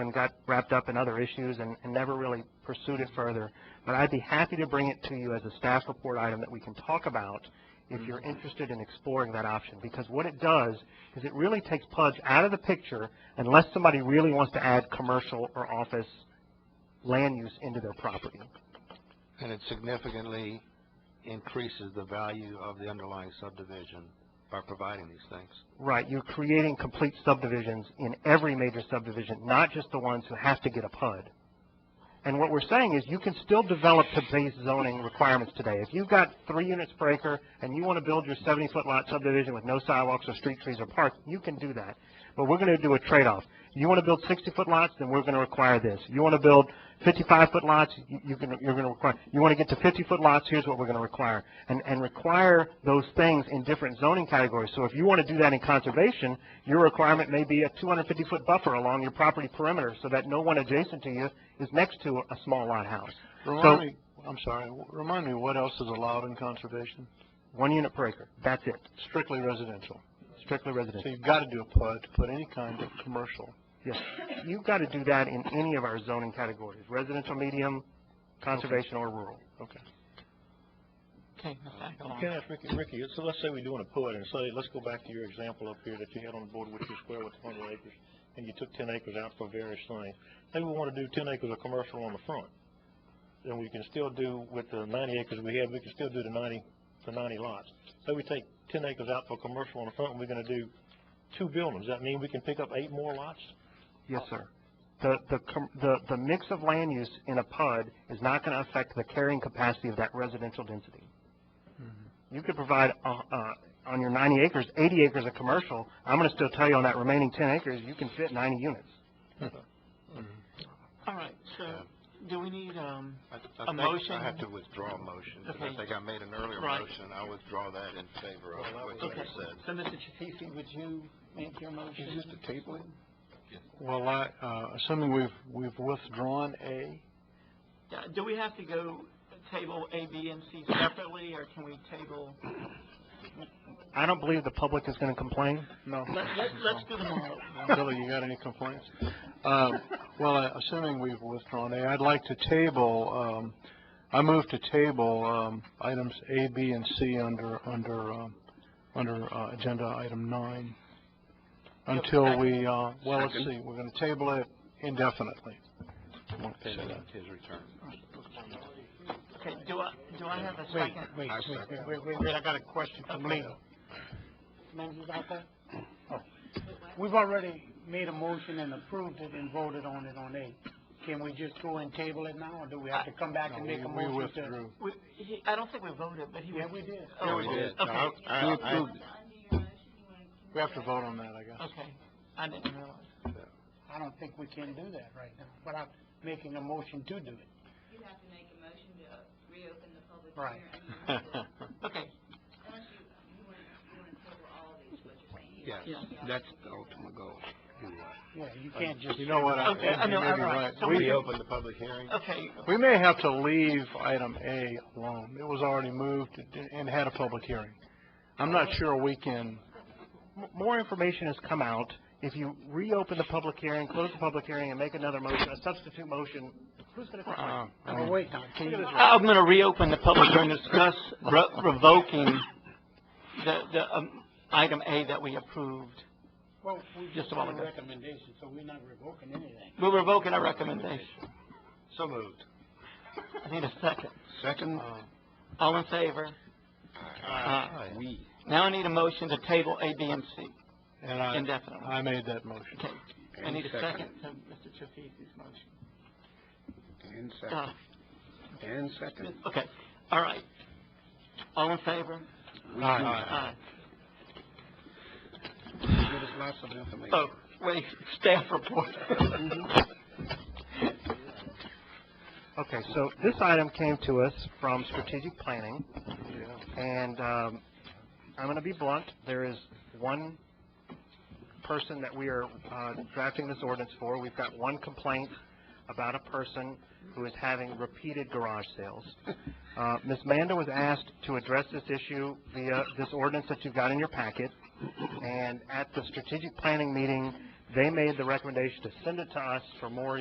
and got wrapped up in other issues and, and never really pursued it further. But I'd be happy to bring it to you as a staff report item that we can talk about if you're interested in exploring that option. Because what it does is it really takes Pudge out of the picture unless somebody really wants to add commercial or office land use into their property. And it significantly increases the value of the underlying subdivision by providing these things. Right, you're creating complete subdivisions in every major subdivision, not just the ones who have to get a PUD. And what we're saying is you can still develop to base zoning requirements today. If you've got three units per acre and you want to build your seventy-foot lot subdivision with no sidewalks or street trees or parks, you can do that. But we're going to do a trade-off. You want to build sixty-foot lots, then we're going to require this. You want to build fifty-five-foot lots, you you can, you're going to require, you want to get to fifty-foot lots, here's what we're going to require. And, and require those things in different zoning categories. So if you want to do that in conservation, your requirement may be a two hundred fifty-foot buffer along your property perimeter so that no one adjacent to you is next to a small lot house. Remind me, I'm sorry, remind me what else is allowed in conservation? One unit per acre, that's it, Strictly residential. strictly residential. So you've got to do a PUD to put any kind of commercial. Yes, you've got to do that in any of our zoning categories, residential, medium, conservation, or rural. Okay. Okay, Mr. Agarwal. Can I ask Ricky, Ricky, so let's say we do want to put, and so let's go back to your example up here that you had on the board with your square with the hundred acres, and you took ten acres out for various things. Maybe we want to do ten acres of commercial on the front. Then we can still do with the ninety acres we have, we can still do the ninety, the ninety lots. Say we take ten acres out for commercial on the front, and we're going to do two buildings. Does that mean we can pick up eight more lots? Yes, sir. The, the, com- the, the mix of land use in a PUD is not going to affect the carrying capacity of that residential density. You could provide, uh, uh, on your ninety acres, eighty acres of commercial, I'm going to still tell you on that remaining ten acres, you can fit ninety units. All right, so do we need, um, I- I think motion? I have to withdraw a motion, because I Okay. think I made an earlier Right. motion. I withdraw that in favor of what you okay, said. so Mr. Chaffifi, would you make your motion? Well, I, uh, assuming we've, we've withdrawn A, Yeah, Do we have to go table A, B, and C separately, or can we table, I don't believe the public is going to complain. no. let, let, let's do them all. Billy, you got any complaints? Um, well, I- assuming we've withdrawn A, I'd like to table, um, I move to table, um, items A, B, and C under, under, um, under, uh, agenda item nine. Until we, uh, well, let's see, we're gonna table it indefinitely. Pending his return. Okay, do I, do I have a second? wait, I wait, second. wait, wait, I got a question for Leo. Members out there? We've already made a motion and approved it and voted on it on A. Can we just go and table it now, or do we have to come back No, and we- make a we motion to? withdrew. We, he, I don't think we voted, but he was. Yeah, we did. Oh, Yeah, we did. No, Okay, I- I- I- We have to vote on that, I guess. okay, I didn't realize. I don't think we can do that right now, but I'm making a motion to do it. You have to make a motion to reopen the public Right. hearing. Unless you, Okay, you want, you want to cover all of these, what you're saying. Yes, Yeah. that's the ultimate goal. Yeah, you can't just. Uh, You know what, I, Okay, I know, you may be I'm right. right. So We- We opened the public hearing. okay, We may have to leave item A alone. It was already moved and had a public hearing. I'm not sure we can, M- More information has come out. If you reopen the public hearing, close the public hearing, and make another motion, a substitute motion, who's going to complain? uh, Oh, wait, now, can you? I'm gonna reopen the public hearing, and discuss re- revoking the, the, um, item A that we approved. Well, we Just just a moment, want a guys. recommendation, so we're not revoking anything. We're revoking our recommendation. So moved. I need a second. Second? All in favor? Aye. We. Now I need a motion to table A, B, and C and I, indefinitely. I made that motion. Okay, I need a second to Mr. Chaffizi's motion. And Uh, and second. okay, all right. All in favor? Aye. Give us lots of information. Oh, wait, staff report. Okay, so this item came to us from strategic planning. And, um, I'm gonna be blunt, there is one person that we are, uh, drafting this ordinance for. We've got one complaint about a person who is having repeated garage sales. Uh, Ms. Manda was asked to address this issue via this ordinance that you've got in your packet. And at the strategic planning meeting, They made the recommendation to send it to us for more